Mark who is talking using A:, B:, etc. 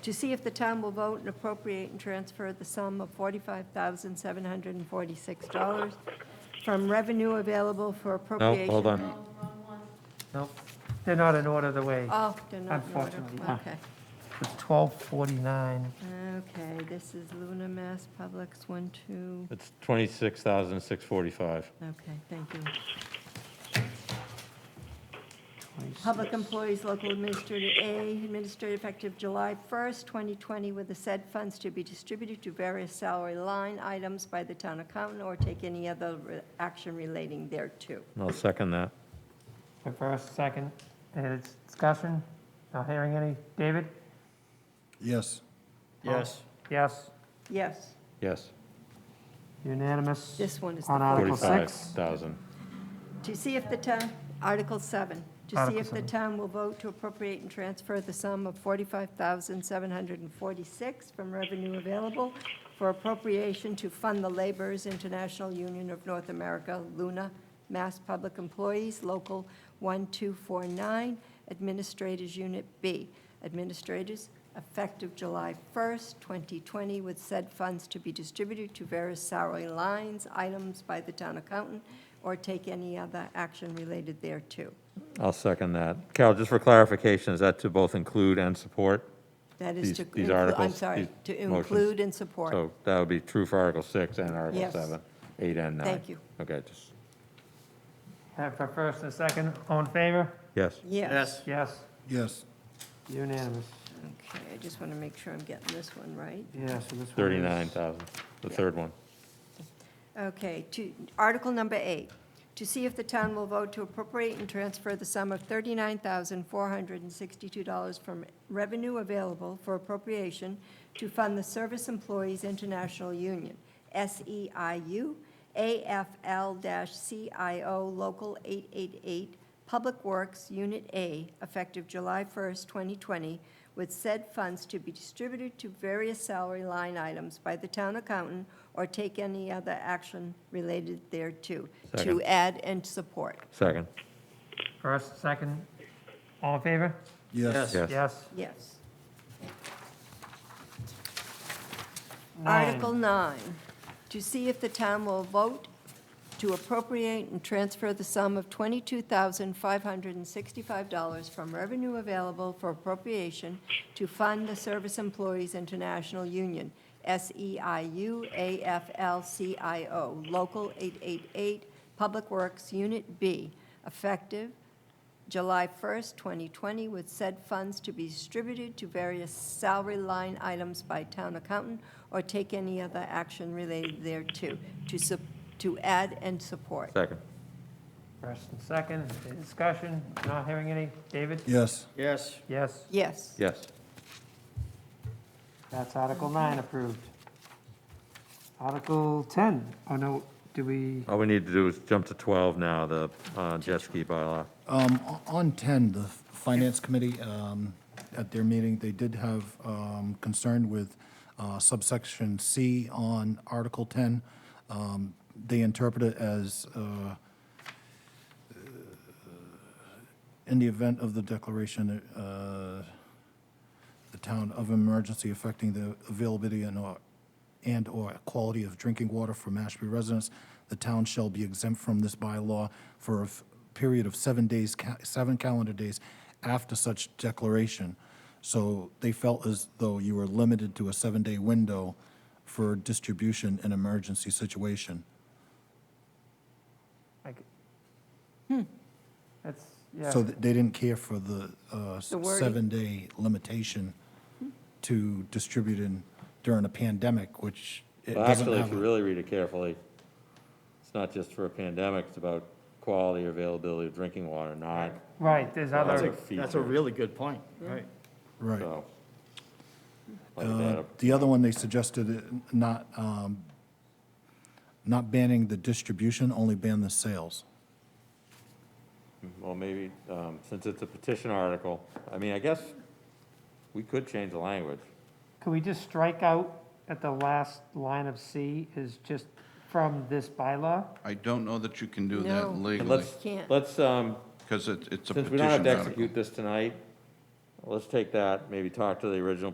A: to see if the town will vote and appropriate and transfer the sum of $45,746 from revenue available for
B: No,
A: appropriation.
B: hold on.
C: No, they're not in order the way.
A: Oh, they're not in order.
C: Unfortunately.
A: Okay.
C: It's 1249.
A: Okay, this is Luna Mass Publics, one, two,
B: It's 26,645.
A: okay, thank you. Public Employees Local Administrator A, administrative effective July 1st, 2020, with the said funds to be distributed to various salary line items by the town accountant or take any other re- action relating thereto.
B: And I'll second that.
C: The first, second, any discussion? Not hearing any. David?
D: Yes.
E: Yes.
C: Yes,
A: Yes,
B: Yes,
C: unanimous.
A: this one is the
C: On Article 6.
B: 45,000.
A: To see if the town, Article 7, to see
C: Article
A: if the
C: seven.
A: town will vote to appropriate and transfer the sum of 45746 from revenue available for appropriation to fund the Laborers International Union of North America, LUNA, Mass Public Employees, Local 1249, Administrators Unit B, Administrators, effective July 1st, 2020, with said funds to be distributed to various salary lines, items by the town accountant, or take any other action related thereto.
B: I'll second that. Carol, just for clarification, is that to both include and support?
A: That is
B: These-
A: to.
B: these
A: inclu- I'm
B: articles,
A: sorry,
B: these
A: to
B: motions.
A: include and support.
B: So that would be true for Article 6 and Article
A: Yes.
B: 7, 8 and 9.
A: Thank you.
B: Okay, just,
C: Have the first and second, all in favor?
B: yes.
A: Yes.
E: Yes.
C: Yes,
D: Yes.
C: unanimous.
A: Okay, I just want to make sure I'm getting this one right.
C: Yeah, so this one is.
B: 39,000, the third one.
A: Okay, to, Article number eight, to see if the town will vote to appropriate and transfer the sum of $39,462 from revenue available for appropriation to fund the Service Employees International Union, E SEIU, AFL-CIO Local 888, Public Works, Unit A, effective July 1st, 2020, with said funds to be distributed to various salary line items by the town accountant or take any other action related thereto, to
B: Second.
A: add and support.
B: Second,
C: First, second, all in favor?
D: Yes.
B: yes.
C: Yes.
A: Yes.
C: Nine.
A: Article 9, to see if the town will vote to appropriate and transfer the sum of $22,565 from revenue available for appropriation to fund the Service Employees International Union, E SEIU AFL-CIO, Local 888, Public Works, Unit B, effective July 1st, 2020, with said funds to be distributed to various salary line items by town accountant or take any other action related thereto, to, sup- to add and support.
B: Second,
C: First and second, any discussion? Not hearing any. David?
D: Yes.
E: Yes.
C: Yes,
A: Yes.
B: yes.
C: that's Article 9 approved. Article 10, oh no, do we,
B: All we need to do is jump to 12 now, the uh, jet ski bylaw.
D: Um, o- on ten, the Finance Committee, um, at their meeting, they did have, um, concern with, uh, subsection C on Article ten. Um, they interpret it as, uh, in the event of the declaration, uh, the town of emergency affecting the availability and or, and/or quality of drinking water for Mashpee residents, the town shall be exempt from this bylaw for a f- period of seven days, ca- seven calendar days after such declaration. So they felt as though you were limited to a seven-day window for distribution in emergency situation.
C: like, that's, yeah.
D: So th- they didn't care for the uh, s-
A: The wording.
D: seven-day limitation to distribute in during a pandemic, which it
B: Well,
D: doesn't
B: Actually, if
D: have.
B: you
D: a-
B: really read it carefully, it's not just for a pandemic, it's about quality, availability of drinking water, not,
C: Right, there's
B: That's
C: other,
B: like-
E: That's a really good point, right?
D: Right.
B: so. like
D: Uh,
B: that.
D: The other one, they suggested uh, not, um, not banning the distribution, only ban the sales.
B: Well, maybe, um, since it's a petition article, I mean, I guess we could change the language.
C: could we just strike out at the last line of C is just from this bylaw?
F: I don't know that you can do
A: No.
F: that
A: And
B: And
F: legally,
B: let's,
A: Can't.
B: let's, um,
F: because it's a
B: since
F: petition
B: we don't have to
F: article.
B: execute this tonight, let's take that, maybe talk to the original